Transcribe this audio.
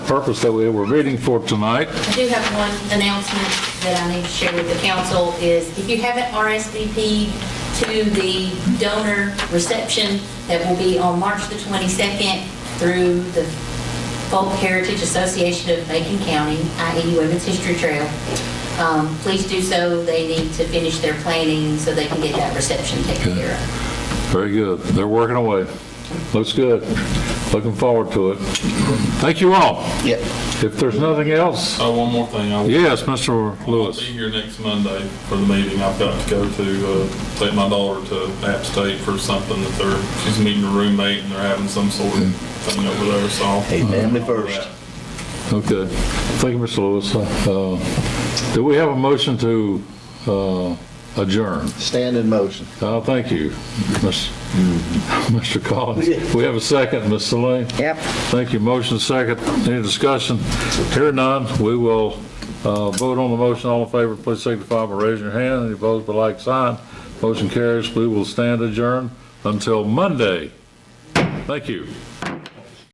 purpose that we were meeting for tonight. I do have one announcement that I need to share with the council is if you haven't RSVP'd to the donor reception that will be on March the 22nd through the Folk Heritage Association of Macon County, i.e. Women's History Trail, um, please do so. They need to finish their planning so they can get that reception taken care of. Very good. They're working away. Looks good. Looking forward to it. Thank you all. Yeah. If there's nothing else, Oh, one more thing. I will yes, Mr. I'll Lewis. be here next Monday for the meeting. I've got to go to, uh, take my daughter to App State for something that they're, she's meeting her roommate and they're having some sort of thing over there, so. I'll- Hey, family first. Okay. Thank you, Mr. Lewis. Uh, Do we have a motion to uh, adjourn? Stand in motion. Uh, Thank you, Miss- Mr. Collins. We have a second, Ms. Celine. Yep. Thank you. Motion second. Any discussion? Here none. We will uh, vote on the motion. All in favor, please signify by raising your hand. Any opposed, by like sign. Motion carries. We will stand adjourned until Monday. Thank you.